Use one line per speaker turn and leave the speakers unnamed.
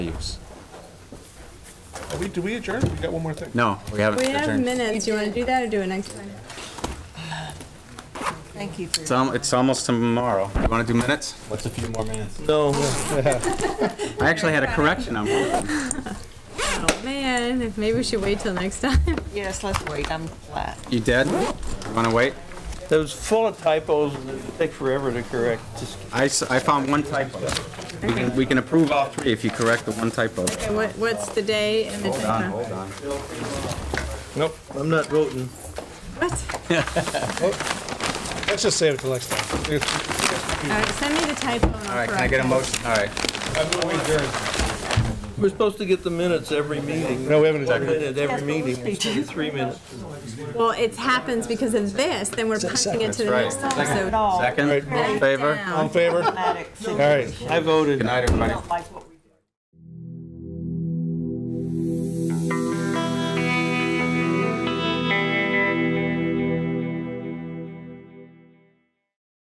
leaves. Are we, do we adjourn? We got one more thing.
No, we haven't
We have
adjourned.
minutes. You want to do that or do it next time?
Thank you for
It's al- it's almost tomorrow. You want to do minutes? What's a few more minutes?
No.
I actually had a correction on one. of them.
Oh, man, if- maybe we should wait till next time.
Yes, let's wait, I'm flat.
You did? Want to wait?
It was full of typos and it'd take forever to correct. Just
I, s- I found one typo. We can, we can approve all three if you correct the one typo.
Okay, What, what's the day and the time?
Hold on.
Nope, I'm not voting.
What?
Let's just save it till next time. It's-
All right, send me the typo and
All
I'll
right, can I
correct
get a
it.
motion? All right.
We're supposed to get the minutes every meeting.
No, we haven't
One
adjourned.
minute every meeting, instead of three minutes.
Well, it happens because of this, then we're punching it to the
right.
next time, so.
all.
Second,
Right.
all in favor?
down.
All in favor? All
Automatic
right.
signatures.
I voted.
Good night, everybody.
Don't like what we